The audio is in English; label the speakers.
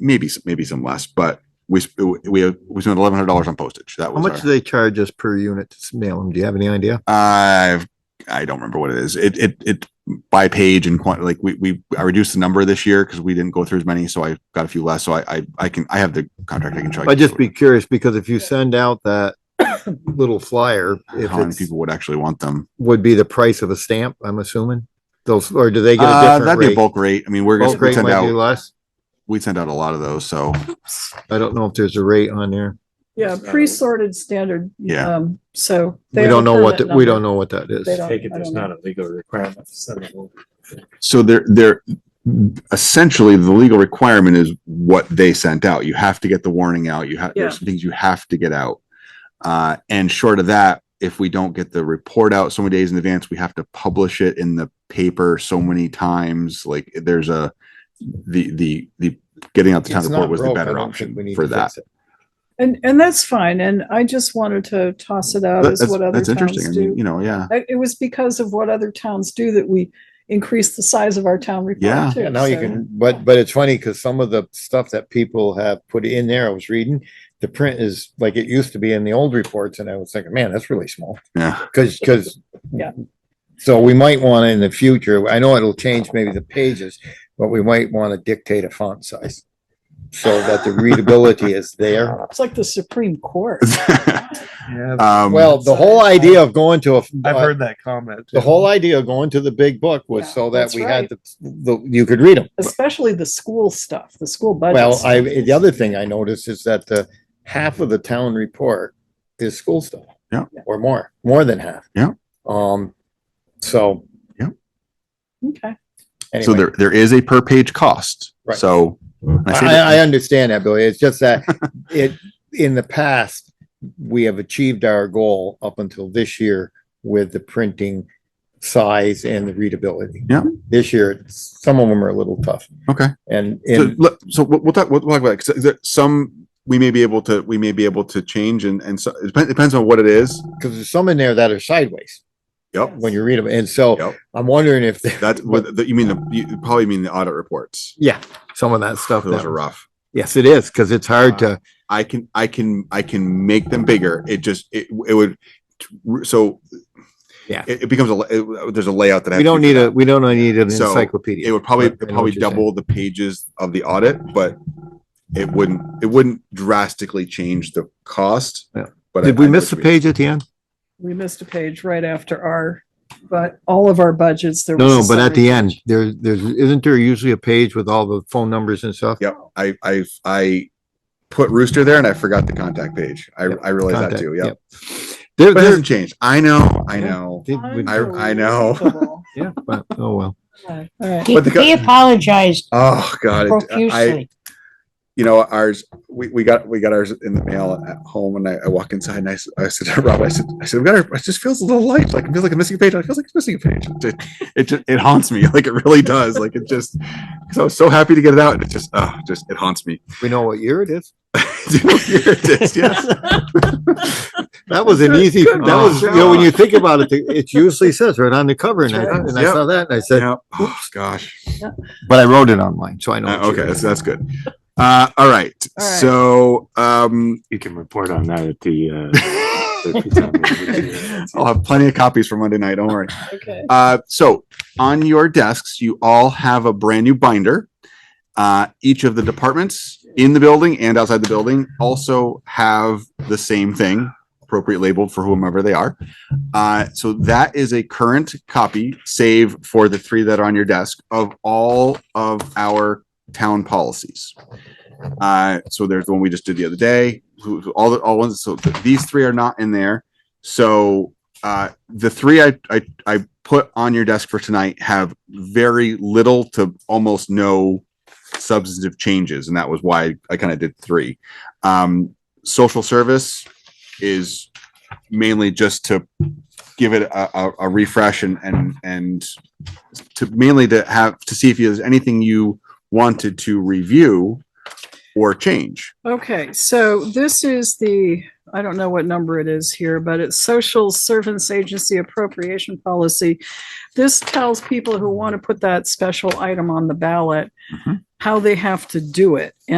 Speaker 1: maybe, s- maybe some less, but we, sp- we, we spent eleven hundred dollars on postage. That
Speaker 2: How
Speaker 1: was
Speaker 2: much do
Speaker 1: our,
Speaker 2: they charge us per unit to s- mail them? Do you have any idea?
Speaker 1: I've, I don't remember what it is. It, it, it by page and quant, like we, we, I reduced the number this year because we didn't go through as many. So I got a few less. So I, I, I can, I have the contract. I can try.
Speaker 2: I'd just be curious because if you send out that little flyer, if
Speaker 1: How many
Speaker 2: it's,
Speaker 1: people would actually want them?
Speaker 2: would be the price of a stamp, I'm assuming? Those, or do they get a
Speaker 1: Uh,
Speaker 2: different
Speaker 1: that'd be a
Speaker 2: rate?
Speaker 1: bulk rate. I mean, we're
Speaker 2: Bulk
Speaker 1: gonna
Speaker 2: rate
Speaker 1: send
Speaker 2: might be
Speaker 1: out,
Speaker 2: less.
Speaker 1: we send out a lot of those. So
Speaker 2: I don't know if there's a rate on there.
Speaker 3: Yeah, pre-sorted standard.
Speaker 1: yeah.
Speaker 3: Um, so.
Speaker 2: We
Speaker 3: they have
Speaker 2: don't
Speaker 3: a
Speaker 2: know what,
Speaker 3: permit
Speaker 2: that- we
Speaker 3: number.
Speaker 2: don't know what that is.
Speaker 3: They don't-
Speaker 4: Take it,
Speaker 3: I
Speaker 4: there's
Speaker 3: don't know.
Speaker 4: not a legal requirement to send them. over.
Speaker 1: So they're, they're essentially the legal requirement is what they sent out. You have to get the warning out. You have, there's
Speaker 3: Yeah.
Speaker 1: some things you have to get out. Uh, and short of that, if we don't get the report out so many days in advance, we have to publish it in the paper so many times. Like there's a, the, the, the getting out the town
Speaker 5: It's
Speaker 1: report
Speaker 5: not
Speaker 1: was the
Speaker 5: broke. I
Speaker 1: better
Speaker 5: don't think we
Speaker 1: option
Speaker 5: need
Speaker 1: for
Speaker 5: to
Speaker 1: that.
Speaker 5: fix it.
Speaker 3: And, and that's fine. And I just wanted to toss it out
Speaker 1: That-
Speaker 3: as
Speaker 1: That's,
Speaker 3: what other
Speaker 1: that's interesting. I
Speaker 3: towns
Speaker 1: mean,
Speaker 3: do.
Speaker 1: you know, yeah.
Speaker 3: I- It was because of what other towns do that we increased the size of our town
Speaker 1: Yeah.
Speaker 3: report too.
Speaker 5: Yeah, now you
Speaker 3: so-
Speaker 5: can, but, but it's funny because some of the stuff that people have put in there, I was reading, the print is like it used to be in the old reports and I was thinking, man, that's really small.
Speaker 1: Yeah.
Speaker 5: Cause, cause.
Speaker 3: Yeah.
Speaker 5: So we might want to in the future, I know it'll change maybe the pages, but we might want to dictate a font size. So that the readability is there.
Speaker 3: It's like the Supreme Court.
Speaker 5: Uh,
Speaker 1: Um,
Speaker 5: Well, the whole idea of going to a. uh,
Speaker 4: I've heard that comment.
Speaker 5: The
Speaker 4: too.
Speaker 5: whole idea of going to the big book was
Speaker 3: Yeah,
Speaker 5: so that
Speaker 3: that's
Speaker 5: we
Speaker 3: right.
Speaker 5: had the, the, you could read them.
Speaker 3: especially the school stuff, the school budget.
Speaker 5: Well,
Speaker 3: stuff.
Speaker 5: I, the other thing I noticed is that the half of the town report is school stuff.
Speaker 1: Yeah.
Speaker 5: Or more, more than half.
Speaker 1: Yeah.
Speaker 5: Um, so
Speaker 3: Okay,
Speaker 1: So
Speaker 5: anyway,
Speaker 1: there, there is a per page cost.
Speaker 5: Right.
Speaker 1: So. and say that-
Speaker 5: I, I understand that, Billy. It's just that it, in the past, we have achieved our goal up until this year with the printing size and the readability.
Speaker 1: Yeah.
Speaker 5: This year, it's- some of them are a little tough
Speaker 1: Okay.
Speaker 5: and,
Speaker 1: So,
Speaker 5: and
Speaker 1: let- so we'll, we'll talk, we'll talk about it, 'cause there- some, we may be able to, we may be able to change and, and so, it depends, depends on what it is.
Speaker 5: because there's some in there that are sideways
Speaker 1: Yep.
Speaker 5: when you read them. And so
Speaker 1: Yep.
Speaker 5: I'm wondering if they
Speaker 1: That's what, the- you mean, the you probably mean the audit reports.
Speaker 2: Yeah, some of that stuff.
Speaker 1: Those
Speaker 2: that-
Speaker 1: are Uh, rough.
Speaker 2: Yes, it is, because it's hard to,
Speaker 1: I can, I can, I can make them bigger. It just, it, it would, so.
Speaker 2: Yeah.
Speaker 1: It, it becomes a, la- it- there's a layout that. I
Speaker 2: we
Speaker 1: have to
Speaker 2: don't need
Speaker 1: figure
Speaker 2: a, we don't need an
Speaker 1: So,
Speaker 2: encyclopedia.
Speaker 1: It would probably,
Speaker 2: I know
Speaker 1: it'd probably
Speaker 2: what you're saying.
Speaker 1: double the pages of the audit, but it wouldn't, it wouldn't drastically change the cost.
Speaker 2: Yeah.
Speaker 1: But I-
Speaker 2: Did we
Speaker 1: I
Speaker 2: miss the
Speaker 1: would read it.
Speaker 2: page at the end?
Speaker 3: we missed a page right after our, but all of our budgets, there was.
Speaker 2: No, no,
Speaker 3: a
Speaker 2: but at
Speaker 3: summary
Speaker 2: the end,
Speaker 3: page.
Speaker 2: there, there's, isn't there usually a page with all the phone numbers and stuff?
Speaker 1: Yep, I, I, I put Rooster there and I forgot the contact page. I,
Speaker 2: Yep,
Speaker 1: I realized that
Speaker 2: Contact,
Speaker 1: too, yep.
Speaker 2: There,
Speaker 1: But it
Speaker 2: there,
Speaker 1: hasn't changed. I know, I know.
Speaker 2: did-
Speaker 1: I- I know.
Speaker 3: Unbelievable.
Speaker 2: yeah, but, oh, well.
Speaker 3: All right.
Speaker 6: He,
Speaker 1: But the co-
Speaker 6: he apologized
Speaker 1: Oh, God. it- I,
Speaker 6: profusely.
Speaker 1: you know, ours, we, we got, we got ours in the mail at home and I, I walk inside and I, s- I said, to Rob, I said, I said, we got our, it just feels a little light. Like it feels like a missing page. It feels like it's missing a page. It, it, ju- it haunts me. Like it really does. Like it just, cause I was so happy to get it out and it just, oh, just, it haunts me.
Speaker 2: We know what year it is.
Speaker 1: It is, yes.
Speaker 2: That was an easy, that
Speaker 3: Good
Speaker 2: was, you
Speaker 1: God.
Speaker 2: know, when you think about it, it usually says right on the cover and I,
Speaker 3: That's right.
Speaker 2: and I
Speaker 1: Yep.
Speaker 2: saw that and I said,
Speaker 1: Yeah. Oh, gosh.
Speaker 2: but I wrote it online, so I know.
Speaker 1: Uh,
Speaker 2: what year
Speaker 1: okay,
Speaker 2: it
Speaker 1: that's,
Speaker 2: is.
Speaker 1: that's good. Uh, all right.
Speaker 3: All right.
Speaker 1: So, um,
Speaker 4: You can report on that at the, uh. the town meeting.
Speaker 1: I'll have plenty of copies for Monday night. Don't worry.
Speaker 3: Okay.
Speaker 1: Uh, so on your desks, you all have a brand new binder. Uh, each of the departments in the building and outside the building also have the same thing, appropriate labeled for whomever they are. Uh, so that is a current copy, save for the three that are on your desk of all of our town policies. Uh, so there's the one we just did the other day, who, who- all the, all ones, so th- these three are not in there. So, uh, the three I, I, I put on your desk for tonight have very little to almost no substantive changes. And that was why I kind of did three. Um, social service is mainly just to give it a, a, a refresh and, and, and to mainly to have, to see if there's anything you wanted to review or change.
Speaker 3: Okay, so this is the, I don't know what number it is here, but it's Social Service Agency Appropriation Policy. This tells people who want to put that special item on the ballot
Speaker 1: Mhm.
Speaker 3: how they have to do it.